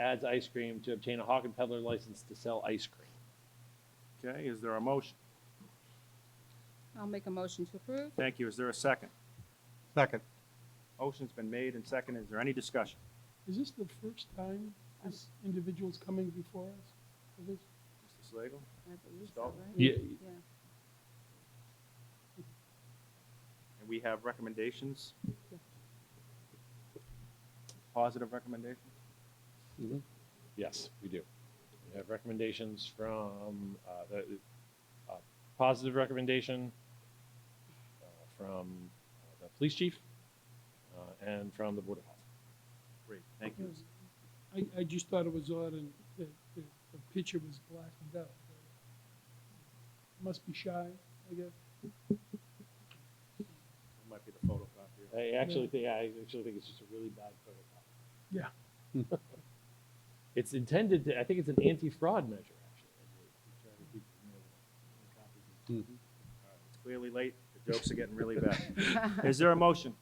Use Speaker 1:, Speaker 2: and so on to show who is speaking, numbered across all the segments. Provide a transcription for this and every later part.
Speaker 1: Adds Ice Cream to obtain a hawk and peddler license to sell ice cream.
Speaker 2: Okay, is there a motion?
Speaker 3: I'll make a motion to approve.
Speaker 2: Thank you. Is there a second?
Speaker 4: Second.
Speaker 2: Motion's been made and seconded. Is there any discussion?
Speaker 5: Is this the first time this individual's coming before us? for this?
Speaker 2: Mr. Slagle?
Speaker 3: I believe so,
Speaker 2: Stop.
Speaker 3: right? Yeah.
Speaker 2: And we have recommendations? Positive recommendations?
Speaker 1: Yes, we do. We have recommendations from, uh, the, uh, positive recommendation uh, from uh, the police chief, uh, and from the Board of Health.
Speaker 2: Great, thank you. Is
Speaker 5: I, I just thought it was odd and the, the, the picture was blackened out. Must be shy, I guess.
Speaker 2: It might be the photocopier.
Speaker 1: I actually think, I actually think it's just a really bad photocopy.
Speaker 5: Yeah.
Speaker 1: It's intended to, I think it's an anti-fraud measure, actually. I believe, to try to keep them all copies of-
Speaker 2: All right, It's clearly late. The jokes are getting really bad. Is there a motion?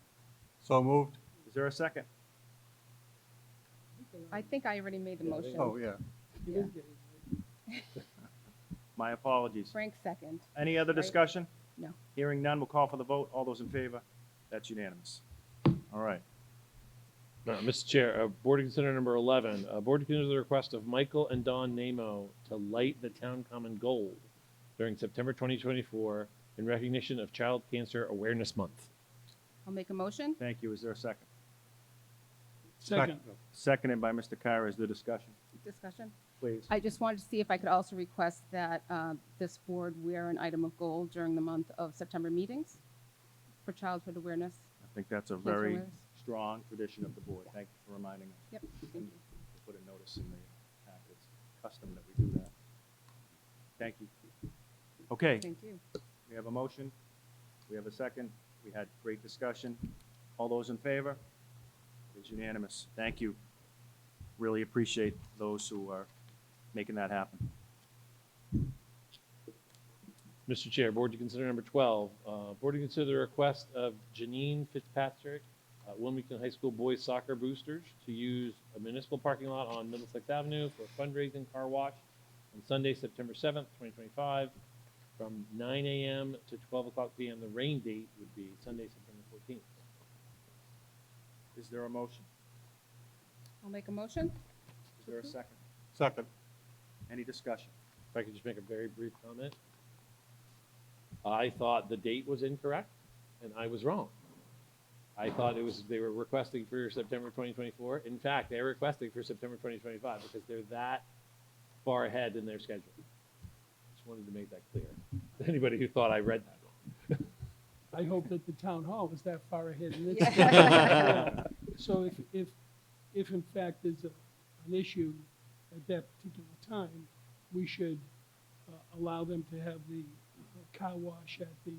Speaker 4: So moved?
Speaker 2: Is there a second?
Speaker 3: I think I already made the
Speaker 1: Yeah, I think-
Speaker 3: motion.
Speaker 4: Oh, yeah.
Speaker 5: You didn't get it, right?
Speaker 2: My apologies.
Speaker 3: Frank second.
Speaker 2: Any other
Speaker 3: Right.
Speaker 2: discussion?
Speaker 3: No.
Speaker 2: Hearing none, we'll call for the vote. All those in favor? That's unanimous. All right.
Speaker 1: Uh, Mr. Chair, uh, Board to consider number 11, uh, Board to consider the request of Michael and Don Nemo to light the town common gold during September 2024 in recognition of Child Cancer Awareness Month.
Speaker 3: I'll make a motion.
Speaker 2: Thank you. Is there a second?
Speaker 5: Second,
Speaker 2: Seconded by Mr. Kira. Is there discussion?
Speaker 3: Discussion.
Speaker 2: Please.
Speaker 3: I just wanted to see if I could also request that uh, this board wear an item of gold during the month of September meetings for childhood awareness.
Speaker 2: I think that's a
Speaker 3: cancer
Speaker 2: very
Speaker 3: awareness.
Speaker 2: strong tradition of the board. Thank you for reminding us.
Speaker 3: Yep, thank you.
Speaker 2: We'll Put a notice in the packet. It's custom that we do that. Thank you. Okay,
Speaker 3: Thank you.
Speaker 2: we have a motion. We have a second. We had great discussion. All those in favor? It is unanimous. Thank you. Really appreciate those who are making that happen.
Speaker 1: Mr. Chair, Board to consider number 12, uh, Board to consider the request of Janine Fitzpatrick, uh, Wilmington High School Boys Soccer Boosters, to use a municipal parking lot on Middlesex Avenue for a fundraising car wash on Sunday, September 7th, 2025, from 9 a.m. to 12 o'clock p.m. The rain date would be Sunday, September 14th.
Speaker 2: Is there a motion?
Speaker 3: I'll make a motion.
Speaker 2: Is there a
Speaker 3: Mm-hmm.
Speaker 2: second?
Speaker 4: Second.
Speaker 2: Any discussion?
Speaker 1: If I could just make a very brief comment. I thought the date was incorrect, and I was wrong. I thought it was, they were requesting for September 2024. In fact, they're requesting for September 2025 because they're that far ahead in their schedule. Just wanted to make that clear. Anybody who thought I read that wrong.
Speaker 5: I hope that the town hall is that far ahead. in its-
Speaker 3: Yeah.
Speaker 5: So if, if, if in fact there's a, an issue at that particular time, we should uh, allow them to have the uh, car wash at the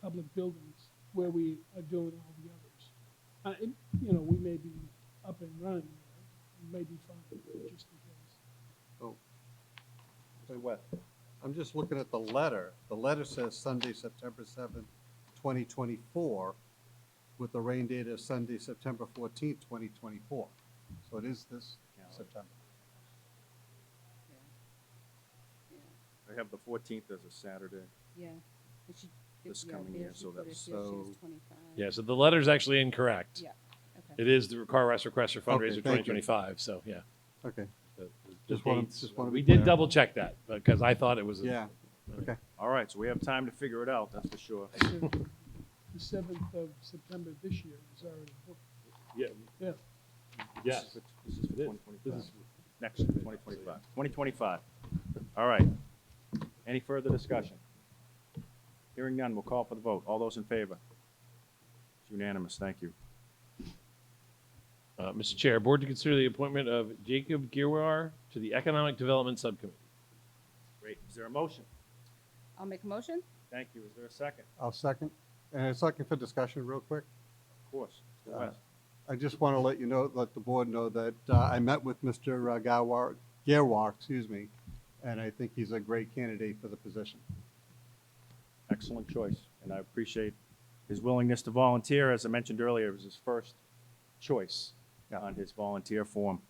Speaker 5: public buildings where we are doing all the others. Uh, and, you know, we may be up and running, we may be fine, just in case.
Speaker 2: Say what?
Speaker 4: I'm just looking at the letter. The letter says Sunday, September seventh, twenty twenty-four, with the rain date of Sunday, September fourteenth, twenty twenty-four. So it is this
Speaker 2: Calendar.
Speaker 4: September.
Speaker 2: I have the fourteenth as a Saturday.
Speaker 3: Yeah. And she-
Speaker 2: This
Speaker 3: yeah,
Speaker 2: coming
Speaker 3: there
Speaker 2: year,
Speaker 3: she
Speaker 2: so
Speaker 3: put it
Speaker 2: that's-
Speaker 3: here, she was
Speaker 4: So-
Speaker 3: 25.
Speaker 1: Yeah, so the letter's actually incorrect.
Speaker 3: Yeah, okay.
Speaker 1: It is the car rush request for fundraiser
Speaker 4: fundraiser Okay, thank you.
Speaker 1: 2025, so yeah.
Speaker 4: Okay, Just wanna- just wanna
Speaker 1: We
Speaker 4: be
Speaker 1: did
Speaker 4: clear.
Speaker 1: double check that because I thought it was. a-
Speaker 4: yeah, okay.
Speaker 2: All right, so we have time to figure it out, that's for sure.
Speaker 5: The seventh of September this year is already booked.
Speaker 1: Yeah.
Speaker 5: Yeah.
Speaker 1: Yes.
Speaker 2: This is for- This is for
Speaker 1: This-
Speaker 2: twenty
Speaker 1: This
Speaker 2: twenty-five.
Speaker 1: is
Speaker 2: Next, twenty twenty-five. Twenty twenty-five. All right. Any further discussion? Hearing none, we'll call for the vote. All those in favor? It's unanimous, thank you.
Speaker 1: Uh, Mr. Chair, Board to consider the appointment of Jacob Girwar to the Economic Development Subcommittee.
Speaker 2: Great, is there a motion?
Speaker 3: I'll make a motion.
Speaker 2: Thank you, is there a second?
Speaker 4: I'll second. And a second for discussion real quick.
Speaker 2: Of course. Mr.
Speaker 4: Uh,
Speaker 2: West.
Speaker 4: I just want to let you know, let the board know that uh, I met with Mr. Gawar, Gerwar, excuse me, and I think he's a great candidate for the position.
Speaker 2: Excellent choice, and I appreciate his willingness to volunteer. As I mentioned earlier, it was his first choice
Speaker 4: Yeah.
Speaker 2: on his volunteer form.